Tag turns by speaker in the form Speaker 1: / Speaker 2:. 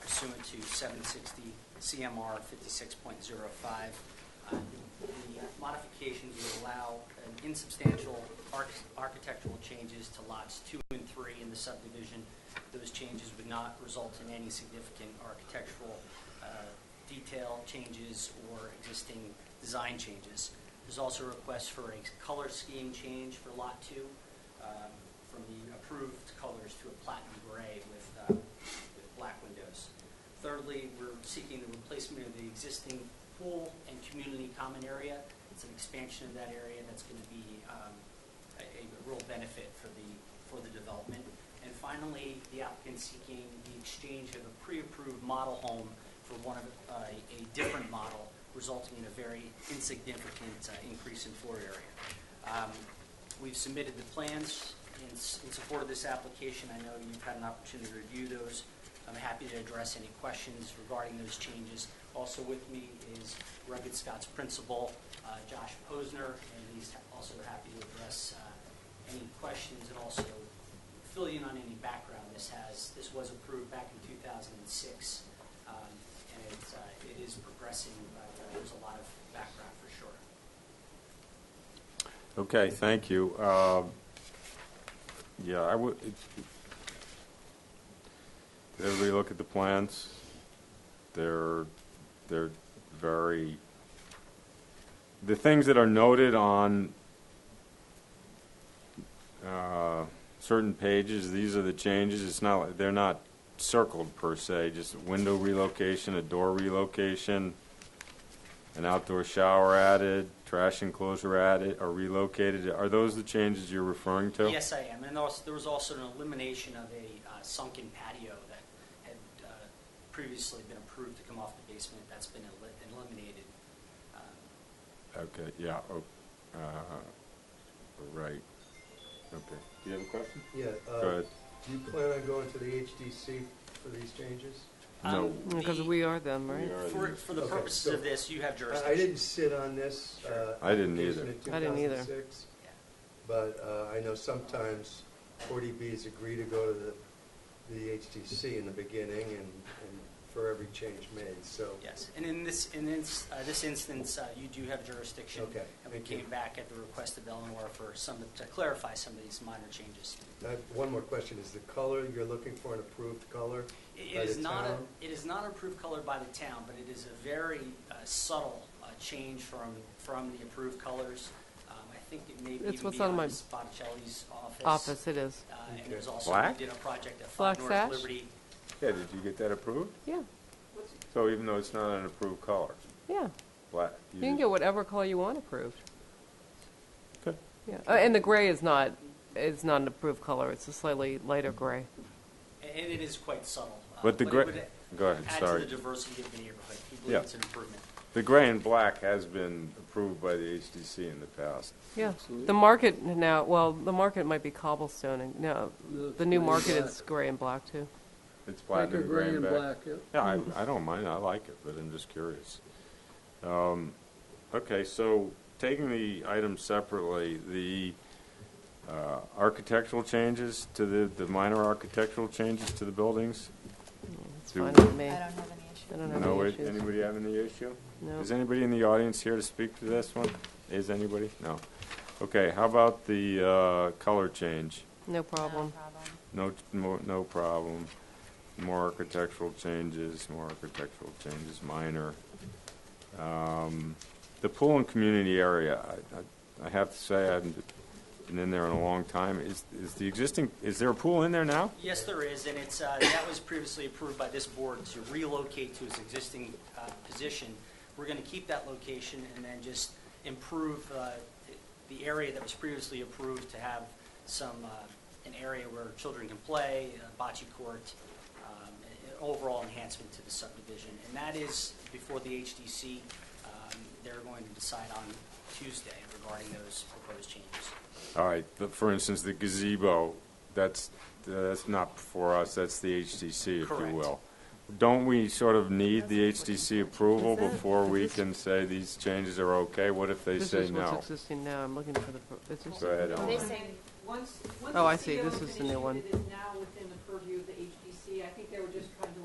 Speaker 1: pursuant to 760 CMR 56.05. Uh, The modifications would allow an insubstantial arch- architectural changes to lots two and three in the subdivision. Those changes would not result in any significant architectural uh, detail changes or existing design changes. There's also requests for a color scheme change for Lot 2 um, from the approved colors to a platinum gray with, uh, with black windows. Thirdly, we're seeking the replacement of the existing pool and community common area. It's an expansion of that area that's going to be um, a, a real benefit for the, for the development. And finally, the applicant seeking the exchange of a pre-approved model home for one of, uh, a different model, resulting in a very insignificant uh, increase in floor area. Um, We've submitted the plans in, s- in support of this application. I know you've had an opportunity to review those. I'm happy to address any questions regarding those changes. Also with me is Rugged Scott's principal, uh, Josh Posner, and he's also happy to address uh, any questions and also fill you in on any background this has. This was approved back in 2006, um, and it's, uh, it is progressing, but uh, there's a lot of background for sure.
Speaker 2: Okay, thank you. Um, Yeah, I would, it- did everybody look at the plans? They're, they're very, the things that are noted on uh, certain pages, these are the changes, it's not, like- they're not circled per se, just window relocation, a door relocation an outdoor shower added, trash enclosure added, or relocated. Are those the changes you're referring to?
Speaker 1: Yes, I am. And also, there was also an elimination of a uh, sunken patio that had uh, previously been approved to come off the basement. That's been eli- eliminated. Uh,
Speaker 2: Okay, yeah, oh, uh, right, okay. Do you have a question?
Speaker 3: Yeah,
Speaker 2: Go
Speaker 3: uh,
Speaker 2: ahead.
Speaker 3: do you plan on going to the HDC for these changes?
Speaker 2: No.
Speaker 1: um,
Speaker 4: Because
Speaker 1: the-
Speaker 4: we are them, right?
Speaker 2: We are
Speaker 1: For,
Speaker 2: the-
Speaker 1: for the
Speaker 3: Okay,
Speaker 1: purposes
Speaker 3: so-
Speaker 1: of this, you have
Speaker 3: I- I didn't
Speaker 1: jurisdiction.
Speaker 3: sit on this. uh,
Speaker 2: I didn't
Speaker 3: application
Speaker 2: either.
Speaker 3: in
Speaker 4: I didn't either.
Speaker 3: 2006,
Speaker 1: Yeah.
Speaker 3: But uh, I know sometimes 40Bs agree to go to the the HDC in the beginning and and for every change made, so.
Speaker 1: Yes. And in this, in this, uh, this instance, uh, you do have jurisdiction.
Speaker 3: Okay,
Speaker 1: And we
Speaker 3: thank you.
Speaker 1: came back at the request of Eleanor for some, to clarify some of these minor changes.
Speaker 3: I have One more question, is the color, you're looking for an approved color?
Speaker 1: It
Speaker 3: by
Speaker 1: it is
Speaker 3: the
Speaker 1: not,
Speaker 3: town?
Speaker 1: a- it is not approved color by the town, but it is a very uh, subtle uh, change from, from the approved colors. Um, I think it may
Speaker 4: It's
Speaker 1: even
Speaker 4: what's
Speaker 1: be
Speaker 4: on
Speaker 1: on
Speaker 4: my
Speaker 1: Spaticelli's office.
Speaker 4: Office, it is.
Speaker 1: Uh, And there's
Speaker 3: Okay.
Speaker 1: also,
Speaker 2: Black?
Speaker 1: we did a project at Five
Speaker 4: Black
Speaker 1: North
Speaker 4: sash?
Speaker 1: Liberty.
Speaker 2: Yeah, did you get that approved?
Speaker 4: Yeah,
Speaker 2: So even though it's not an approved color,
Speaker 4: yeah.
Speaker 2: black?
Speaker 4: You can get whatever color you want approved.
Speaker 2: Okay.
Speaker 4: Yeah, Uh, and the gray is not, is not an approved color. It's a slightly lighter gray.
Speaker 1: a- And it is quite subtle. uh,
Speaker 2: But the
Speaker 1: it
Speaker 2: gray,
Speaker 1: would
Speaker 2: go ahead,
Speaker 1: Add to
Speaker 2: sorry.
Speaker 1: the diversity of the neighborhood. We
Speaker 2: Yeah.
Speaker 1: believe it's an improvement.
Speaker 2: The gray and black has been approved by the HDC in the past.
Speaker 4: Yeah. The market now, well, the market might be cobblestone and, no, the new market is gray and black too.
Speaker 2: It's black and gray and black.
Speaker 5: yeah.
Speaker 2: Yeah, I, I don't mind, I like it, but I'm just curious. Um, Okay, so taking the items separately, the uh, architectural changes to the, the minor architectural changes to the buildings?
Speaker 4: It's
Speaker 2: Do-
Speaker 4: fine with me.
Speaker 6: I
Speaker 4: I
Speaker 6: don't have any issue.
Speaker 4: don't have
Speaker 2: No,
Speaker 4: any
Speaker 2: wait,
Speaker 4: issues.
Speaker 2: anybody have any issue?
Speaker 4: No.
Speaker 2: Is anybody in the audience here to speak to this one? Is anybody? No. Okay, how about the uh, color change?
Speaker 4: No
Speaker 6: No
Speaker 4: problem.
Speaker 2: No, no no problem. More architectural changes, more architectural changes, minor. Um, The pool and community area, I- I- I have to say, I haven't been in there in a long time. Is, is the existing, is there a pool in there now?
Speaker 1: Yes, there is, and it's, uh, that was previously approved by this board to relocate to its existing uh, position. We're going to keep that location and then just improve uh, the area that was previously approved to have some, uh, an area where children can play, a bocce court, um, an overall enhancement to the subdivision. And that is before the HDC. Um, They're going to decide on Tuesday regarding those proposed changes.
Speaker 2: All right, but for instance, the gazebo, that's, that's not for us, that's the HDC, if you
Speaker 1: Correct.
Speaker 2: will. Don't we sort of need the HDC approval before we can say these changes are okay? What if they
Speaker 4: This
Speaker 2: say
Speaker 4: is
Speaker 2: no?
Speaker 4: what's existing now. I'm looking for the, pro- it's just.
Speaker 2: Go ahead,
Speaker 7: So
Speaker 2: Ellen.
Speaker 7: They say, once, once
Speaker 4: Oh, I
Speaker 7: the
Speaker 4: see.
Speaker 7: CO
Speaker 4: This is the new
Speaker 7: information
Speaker 4: one.
Speaker 7: that is now within